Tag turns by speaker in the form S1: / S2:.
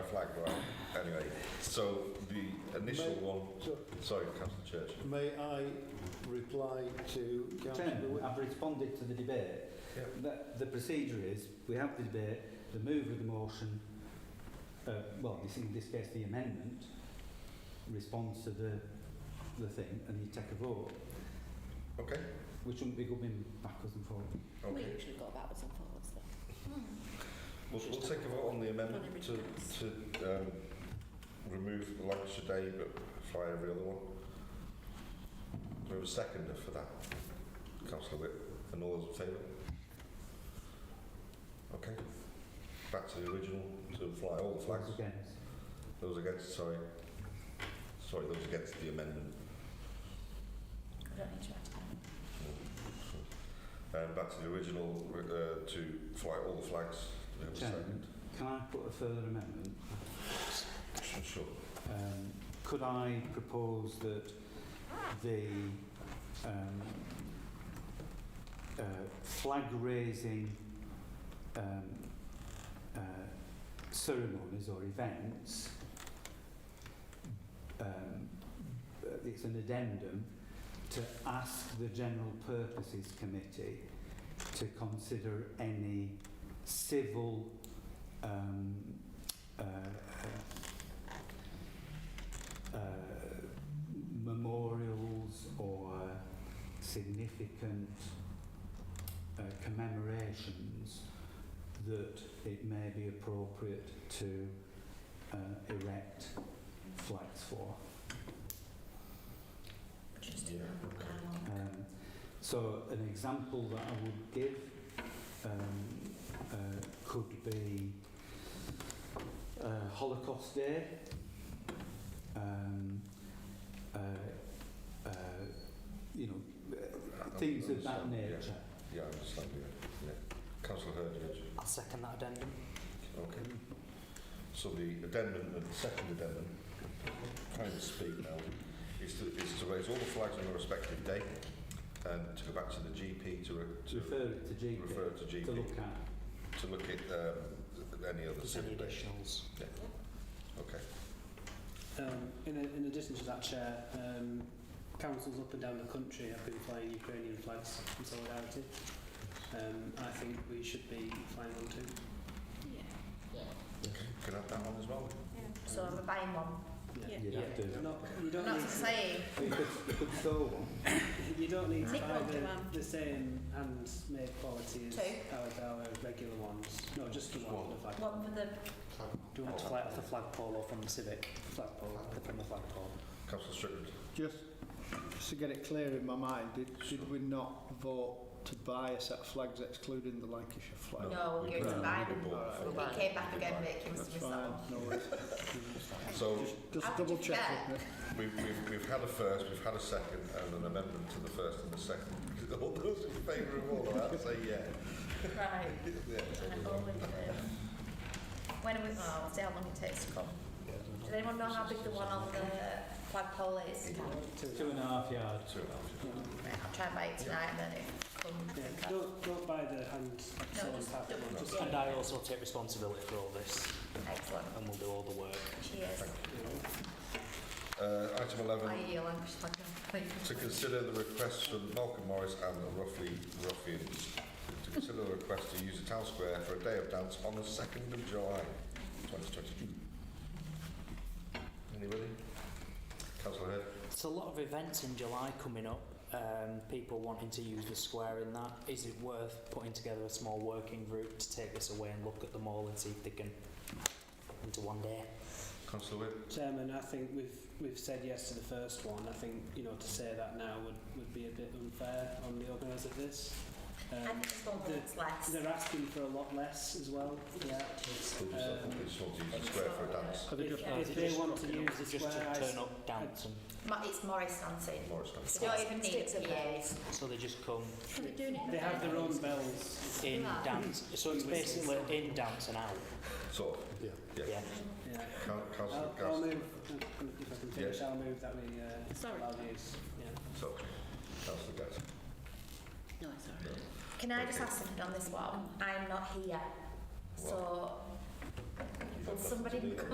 S1: flag right. Anyway, so the initial
S2: May-
S1: one.
S2: So,
S1: Sorry, Councillor Church.
S2: may I reply to Councillor
S3: Chairman,
S2: Wick?
S3: I've responded to the debate.
S1: Yeah.
S3: The, the procedure is, we have the debate, the mover of the motion, uh, well, this, in this case, the amendment, responds to the, the thing, and you take a vote,
S1: Okay.
S3: which wouldn't be going backwards and forwards.
S1: Okay.
S4: We usually go backwards and forwards though.
S1: We'll, we'll take a vote on the amendment Uh, to, to um, remove the Lancashire Day but fly every other one. Do we have a seconder for that? Councillor Whip. And all those in favour? Okay. Back to the original to fly all the flags.
S3: Those Against.
S1: Those against, sorry. Sorry, those against the amendment.
S4: I don't need to write
S1: Um, back to the original uh, to fly all the flags. Do we have a second?
S3: Chairman, can I put a further amendment?
S1: Sure.
S3: Um, could I propose that the um, uh, flag raising um, uh, ceremonies or events, um, uh, it's an addendum to ask the General Purposes Committee to consider any civil um, uh, uh, uh, memorials or significant uh, commemorations that it may be appropriate to uh, erect flags for.
S4: Just
S1: Yeah, okay.
S4: um,
S3: Um, so an example that I would give um, uh, could be uh, Holocaust Day, um, uh, uh, you know, uh, things of that
S1: Understand, yeah.
S3: nature.
S1: Yeah, I understand. Yeah. yeah. Councillor Hurd, yes.
S5: I'll second that addendum.
S1: Okay.
S3: Mm.
S1: So the addendum, the second addendum, trying to speak now, is to, is to raise all the flags on the respective day and to go back to the GP to, re,
S3: To
S1: to
S3: refer it to GP,
S1: refer to GP
S3: to look at.
S1: to look at um, any other
S5: There's any
S1: civil day.
S5: additionals?
S1: Okay.
S6: Um, in, a, in addition to that, Chair, um, councils up and down the country have been flying Ukrainian flags in solidarity. Um, I think we should be flying one too.
S4: yeah.
S1: Okay. Can I have that one as well?
S4: So I'm buying one. Yeah.
S3: You'd have to.
S6: Not, you don't
S4: Not
S6: need
S4: to say
S3: You could, you could sew one.
S6: you don't need to
S4: Nick
S6: buy
S4: won't do one.
S6: the, the same handmade quality as
S4: Two.
S6: our, our regular ones. No, just the
S1: Just
S6: one.
S1: one.
S6: The flag.
S4: one for the
S6: Do you want the flag, the flagpole or from the civic?
S1: Oh,
S6: Flagpole, from the flagpole.
S1: Councillor Strickland.
S7: Just, just to get it clear in my mind, did, did we not vote to buy a set of flags excluding the Lancashire flag?
S4: No,
S1: we
S4: you're
S1: bought-
S7: to
S4: buy
S1: we
S4: them.
S1: bought the
S7: We're
S1: flag.
S4: it came back
S1: We
S4: again,
S1: bought
S4: but
S1: it.
S4: it came
S7: That's
S4: to
S7: fine,
S4: myself.
S7: no worries.
S5: Oh.
S1: So
S7: Just, just
S4: After
S7: double check
S4: that-
S7: with me.
S1: We've, we've, we've had a first, we've had a second, and an amendment to the first and the second. All those in favour of all of that, say yeah.
S4: Right.
S1: Yeah, so
S4: And
S1: we've got-
S4: all of them. When are we, oh, I'll see how long it takes to come. Does anyone know how big the one on the flagpole is?
S3: Two and a half yards.
S1: Two and a half.
S4: Right, I'll try and buy it tonight and then it comes.
S6: Yeah,
S4: and I'll-
S6: don't, don't buy the hand sewn
S4: just
S6: type
S4: double-
S6: one. Just
S5: And I also take responsibility for all this,
S4: Excellent.
S5: and we'll do all the work.
S4: Cheers.
S1: Uh, item 11,
S4: I eat your language like a
S1: to consider the request from Malcolm Morris and the Roughly Ruffians to consider the request to use the town square for a day of dance on the 2nd of July 2022. Anybody? Councillor Head?
S5: There's a lot of events in July coming up, um, people wanting to use the square and that. Is it worth putting together a small working group to take this away and look at them all and see if they can into one day?
S1: Councillor Whip?
S6: Chairman, I think we've we've said yes to the first one. I think you know to say that now would, would be a bit unfair on the organisers of this.
S4: I
S6: Um,
S4: think it's one
S6: the-
S4: that's less.
S6: they're asking for a lot less as well. Yeah.
S1: They just, they just want to use the square for a dance.
S6: If,
S4: Yeah.
S6: if they want to use the
S5: Just
S6: square,
S5: to
S6: I s-
S5: turn up, dance and...
S4: Ma- It's Morris dancing.
S1: Morris dance.
S4: They don't even need a PA.
S5: So they just come
S6: they have their own bells.
S5: in dance. So it's basically in, dance and out.
S1: Sort of.
S7: Yeah.
S5: Yeah.
S6: Yeah.
S1: Coun- Councillor
S6: I'll, I'll
S1: Gass.
S6: move, if I can finish, I'll move that we uh,
S4: Sorry.
S6: allow these. Yeah.
S1: So, Councillor Gass.
S4: No, it's alright. Can I just ask something on this one? I'm not here. So,
S1: You've got
S4: will
S1: nothing to
S4: somebody
S1: do.